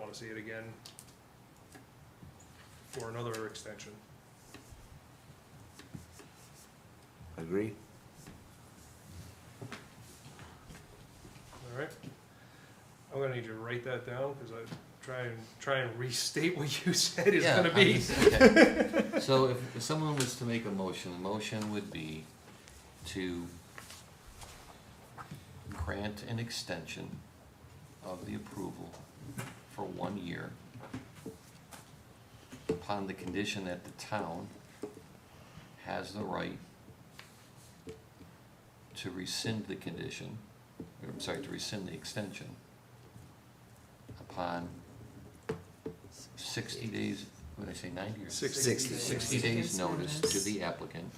wanna see it again for another extension. Agree? All right. I'm gonna need you to write that down, cause I try and, try and restate what you said is Yeah, gonna I be. just- okay. So if, if someone was to make a motion, the motion would be to grant an extension of the approval for one year upon the condition that the town has the right to rescind the condition, or, I'm sorry, to rescind the extension upon sixty days, what did I say, ninety or? Sixty. Sixty. Sixty days notice to the applicant,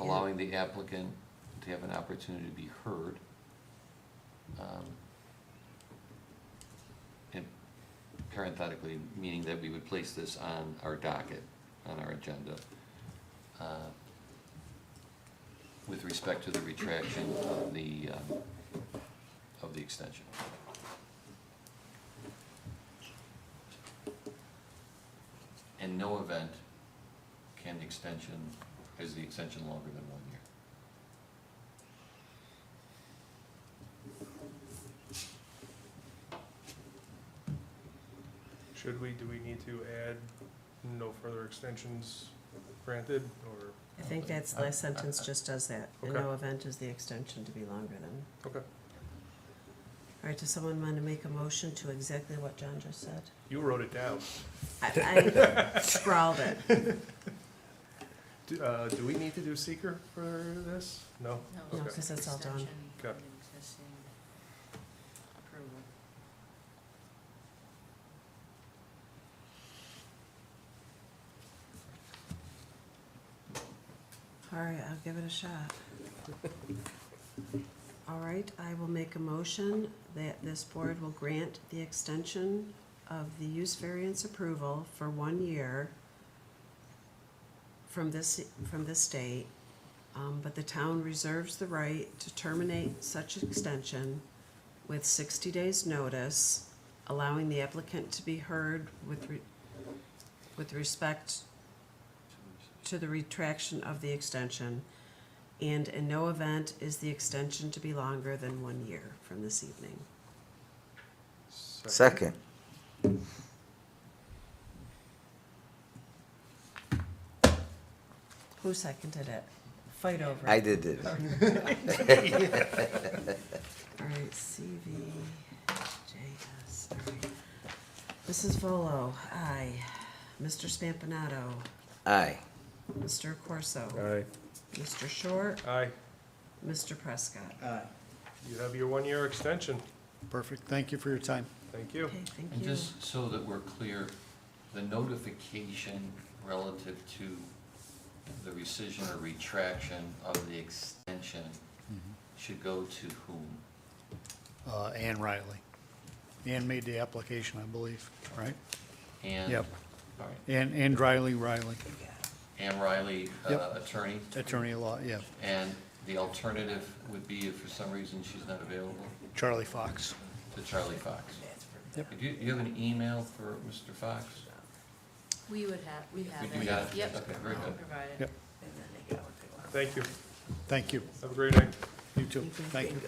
allowing the applicant to have an opportunity to be heard. um, And parenthetically, meaning that we would place this on our docket, on our agenda, uh, with respect to the retraction of the, um, of the extension. In no event can the extension, is the extension longer than one year. Should we, do we need to add no further extensions granted, or, I think that's, the last sentence just does that. In Okay. no event is the extension to be longer than. okay, All right, does someone want to make a motion to exactly what John just said? you wrote it down. I, I scrawled it. Do, uh, do we need to do seeker for this? No? No, Okay. because that's all done. Extension Okay. of existing approval. All right, I'll give it a shot. All right, I will make a motion that this board will grant the extension of the use variance approval for one year from this, from this date, um, but the town reserves the right to terminate such extension with sixty days' notice, allowing the applicant to be heard with re- with respect to the retraction of the extension, and in no event is the extension to be longer than one year from this evening. Second. Who seconded it? Fight over it. I did it. All right, CV, JS, all right. Mrs. Volo, aye. Mr. Spampanato, Aye. Mr. Corso, Aye. Mr. Short, Aye, Mr. Prescott. Uh, you have your one-year extension, Perfect. Thank you for your time. thank you. Okay, thank And you. just so that we're clear, the notification relative to the rescission or retraction of the extension should go to whom? Uh, Ann Riley. Ann made the application, I believe, right? And, Yep. all right, Ann, Ann Riley, Riley, Ann Riley, uh, Yep. attorney, attorney at law, yeah. and the alternative would be if for some reason she's not available, Charlie Fox. to Charlie Fox. Yep. Do you, you have an email for Mr. Fox? We would have, we have it. we got it. Yep. Okay, very good. Provide it. Yep. Thank you, Thank you. have a great night. You too. Thank you.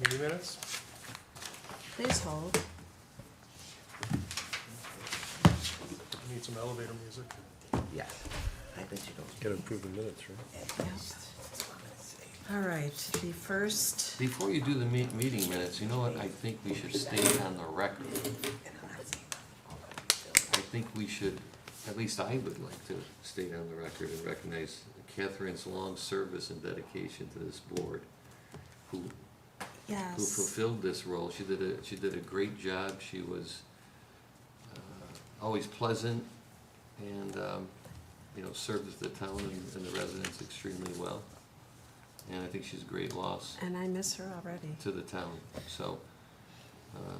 Meeting minutes? Please hold. We Need some elevator music. Yeah. I bet you don't. Get approved in minutes, right? Yep. All right, the first Before you do the me- meeting minutes, you know what I think we should state on the record? I think we should, at least I would like to state on the record and recognize Catherine's long service and dedication to this board, who Yes. who fulfilled this role. She did a, she did a great job. She was uh, always pleasant and, um, you know, served the town and and the residents extremely well. And I think she's a great loss And I miss her already. to the town. So uh,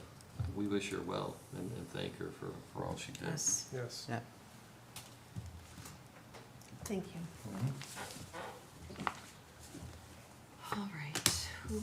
we wish her well and and thank her for, for all she did. Yes, Yes. thank you. Mhm. All right.